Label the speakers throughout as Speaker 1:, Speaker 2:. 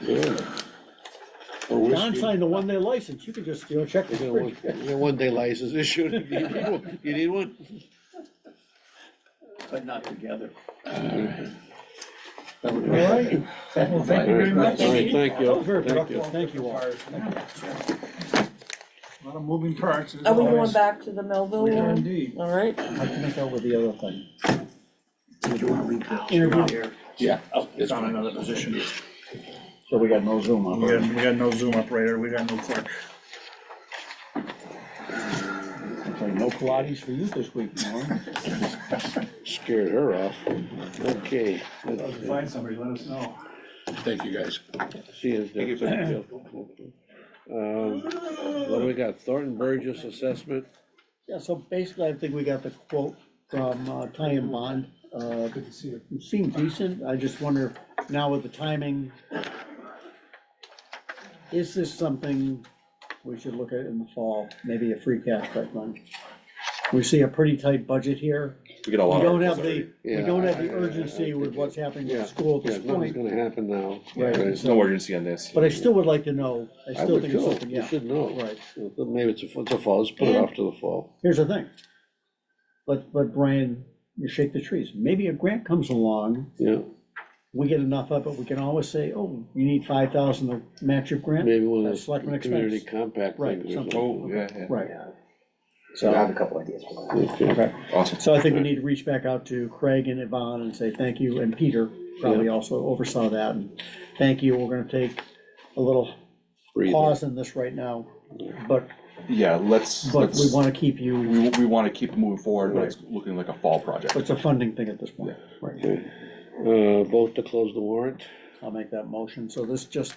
Speaker 1: Yeah. Or
Speaker 2: John
Speaker 1: whiskey.
Speaker 2: signed the one-day license, you could just, you know, check
Speaker 1: You
Speaker 2: the
Speaker 1: get a one- you get a one-day license issued, if you need one, you need one?
Speaker 3: but not together.
Speaker 2: All right, well, thank you very much.
Speaker 1: All right, thank you.
Speaker 2: Very
Speaker 1: Thank you.
Speaker 2: productive, thank you all.
Speaker 4: Lot of moving parts. as
Speaker 5: Are we
Speaker 4: always.
Speaker 5: going back to the Melville
Speaker 4: We are
Speaker 5: one?
Speaker 4: indeed.
Speaker 5: All right,
Speaker 2: I can make over the other thing.
Speaker 4: Did you want to read that?
Speaker 2: Interview.
Speaker 4: Here.
Speaker 1: Yeah.
Speaker 4: Oh, It's on another position.
Speaker 2: So we got no Zoom
Speaker 4: We got, we got no Zoom operator, we got no clerk.
Speaker 2: No Pilates for you this week, Norm.
Speaker 1: Scared her off. Okay,
Speaker 4: Find somebody, let us know.
Speaker 6: Thank you, guys.
Speaker 1: see you. Dick. Um, What do we got? Thornton Burgess assessment?
Speaker 2: Yeah, so basically, I think we got the quote from uh, Ty and Bond. Uh,
Speaker 4: Good to see you.
Speaker 2: It seemed decent, I just wonder now with the timing, is this something we should look at in the fall, maybe a free cash type fund? We see a pretty tight budget here.
Speaker 6: We get a
Speaker 2: We
Speaker 6: lot of.
Speaker 2: don't have
Speaker 6: articles
Speaker 2: the,
Speaker 6: already.
Speaker 2: we
Speaker 1: Yeah,
Speaker 2: don't have
Speaker 1: I-
Speaker 2: the
Speaker 1: I- I
Speaker 2: urgency with
Speaker 1: think
Speaker 2: what's happening with
Speaker 1: Yeah,
Speaker 2: the school at
Speaker 1: Yeah,
Speaker 2: this
Speaker 1: nothing's
Speaker 2: point.
Speaker 1: gonna happen now.
Speaker 2: Right.
Speaker 6: There's no urgency on this.
Speaker 2: But I still would like to know, I
Speaker 1: I
Speaker 2: still
Speaker 1: would
Speaker 2: think it's
Speaker 1: go,
Speaker 2: something,
Speaker 1: you
Speaker 2: yeah,
Speaker 1: should know.
Speaker 2: right.
Speaker 1: Maybe it's a, it's a fall, let's put it off to the fall.
Speaker 2: Here's the thing. Let, let Brian shake the trees. Maybe a grant comes along
Speaker 1: Yeah,
Speaker 2: we get enough of it, we can always say, oh, you need five thousand to match your grant,
Speaker 1: maybe one of
Speaker 2: That's
Speaker 1: those
Speaker 2: selectmen
Speaker 1: community
Speaker 2: expense.
Speaker 1: compact
Speaker 2: Right,
Speaker 1: things. or
Speaker 2: something.
Speaker 1: something.
Speaker 6: Oh, yeah, yeah.
Speaker 2: right?
Speaker 7: I have
Speaker 2: So,
Speaker 7: a couple ideas for that.
Speaker 1: Okay.
Speaker 2: okay,
Speaker 6: Awesome.
Speaker 2: so I think we need to reach back out to Craig and Yvonne and say thank you, and Peter probably also oversaw that, and thank you, we're gonna take a little
Speaker 1: Breathe.
Speaker 2: pause in this right now, but,
Speaker 6: Yeah, let's,
Speaker 2: but we
Speaker 6: let's,
Speaker 2: wanna keep you,
Speaker 6: we, we wanna keep moving forward, but it's looking like a fall project.
Speaker 2: it's a funding thing at this point, right?
Speaker 1: Okay. Uh, vote to close the warrant.
Speaker 2: I'll make that motion, so this just,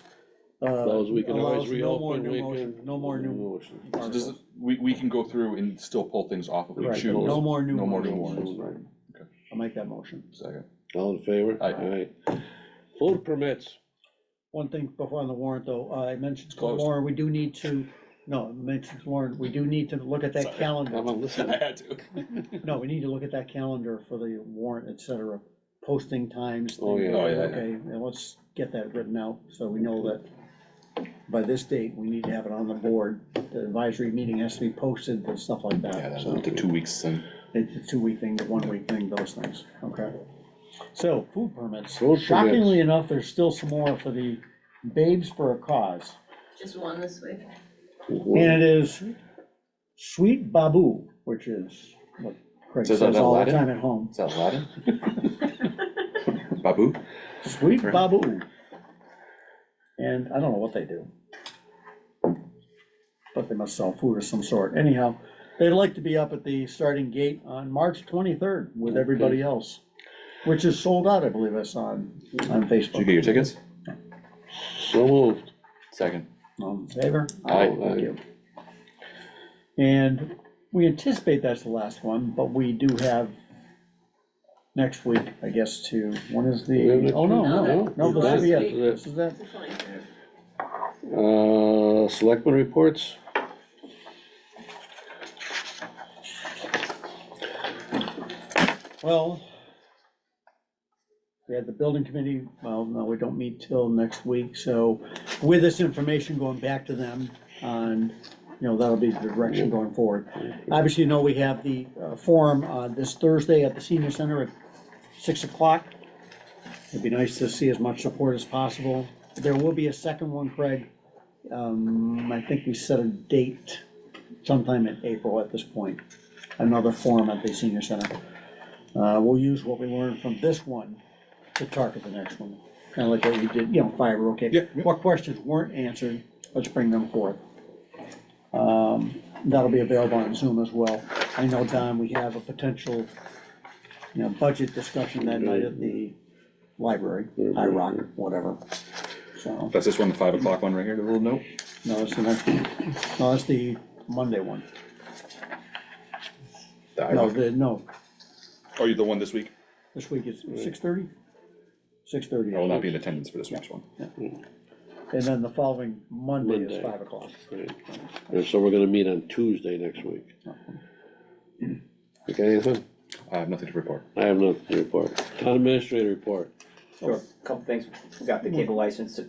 Speaker 2: uh,
Speaker 1: Those we can always
Speaker 2: allows no more
Speaker 1: reopen,
Speaker 2: new
Speaker 1: we
Speaker 2: motion,
Speaker 1: can.
Speaker 2: no more new
Speaker 1: motion.
Speaker 6: So does it- We, we can go through and still pull things off if we
Speaker 2: Right,
Speaker 6: choose.
Speaker 2: no more new
Speaker 6: No more new
Speaker 2: motions.
Speaker 6: ones.
Speaker 1: Right.
Speaker 2: I'll make that motion.
Speaker 6: Second.
Speaker 1: All in favor?
Speaker 6: Aye.
Speaker 1: Aye. Food permits,
Speaker 2: One thing before on the warrant, though, uh, I mentioned to
Speaker 6: Closed.
Speaker 2: Lauren, we do need to, no, I mentioned to Lauren, we do need to look at that calendar.
Speaker 1: I'm on
Speaker 6: I
Speaker 1: listening.
Speaker 6: had to.
Speaker 2: No, we need to look at that calendar for the warrant, et cetera, posting times.
Speaker 1: Oh,
Speaker 2: things,
Speaker 1: yeah.
Speaker 6: Oh, yeah, yeah.
Speaker 2: Okay, and let's get that written out, so we know that by this date, we need to have it on the board. The advisory meeting has to be posted and stuff like
Speaker 6: Yeah,
Speaker 2: that,
Speaker 6: that'll
Speaker 2: so
Speaker 6: take two weeks and.
Speaker 2: it's a two-week thing, the one-week thing, those things, okay? So, food permits.
Speaker 1: Food permits.
Speaker 2: Shockingly enough, there's still some more for the Babes for a Cause.
Speaker 8: Just one this week.
Speaker 2: And it is Sweet Babu, which is what Craig
Speaker 6: Says
Speaker 2: says
Speaker 6: that in
Speaker 2: all the
Speaker 6: Latin?
Speaker 2: time at home.
Speaker 6: Is that Aladdin? Babu?
Speaker 2: Sweet
Speaker 6: Right.
Speaker 2: Babu. And I don't know what they do. But they must sell food of some sort. Anyhow, they'd like to be up at the starting gate on March twenty-third with everybody else, which is sold out, I believe I saw on, on
Speaker 6: Did you get your
Speaker 2: Facebook.
Speaker 6: tickets?
Speaker 1: So moved.
Speaker 6: Second.
Speaker 2: All in favor?
Speaker 6: Aye.
Speaker 2: Thank you. And we anticipate that's the last one, but we do have next week, I guess, to, when is
Speaker 1: We have
Speaker 2: the,
Speaker 1: next
Speaker 2: oh, no,
Speaker 1: week?
Speaker 2: no,
Speaker 8: No,
Speaker 2: no, this is
Speaker 8: this
Speaker 2: it,
Speaker 8: week.
Speaker 2: this is it.
Speaker 8: It's the 23rd.
Speaker 1: Uh, selectmen reports?
Speaker 2: Well, we had the building committee, well, no, we don't meet till next week, so with this information going back to them on, you know, that'll be the direction going forward. Obviously, you know, we have the uh, forum uh, this Thursday at the senior center at six o'clock. It'd be nice to see as much support as possible. There will be a second one, Craig. Um, I think we set a date sometime in April at this point, another forum at the senior center. Uh, we'll use what we learned from this one to target the next one, kinda like what we did, you know, fire, okay? What questions weren't answered, let's bring them forth. Um, that'll be available on Zoom as well. I know, Don, we have a potential, you know, budget discussion that night at the library, I rock, whatever, so.
Speaker 6: That's this one, the five o'clock one right here, the little note?
Speaker 2: No, it's the next, no, it's the Monday one.
Speaker 6: The
Speaker 2: No,
Speaker 6: IROC.
Speaker 2: the, no,
Speaker 6: Oh, you're the one this week?
Speaker 2: this week is six thirty? Six thirty.
Speaker 6: I will not be in attendance for this next one.
Speaker 2: And then the following Monday
Speaker 1: Monday.
Speaker 2: is five o'clock.
Speaker 1: And so we're gonna meet on Tuesday next week.
Speaker 2: Uh-huh.
Speaker 1: Okay, Ethan?
Speaker 6: I have nothing to report.
Speaker 1: I have nothing to report. Town administrator report.
Speaker 7: So, Couple things, we got the cable license,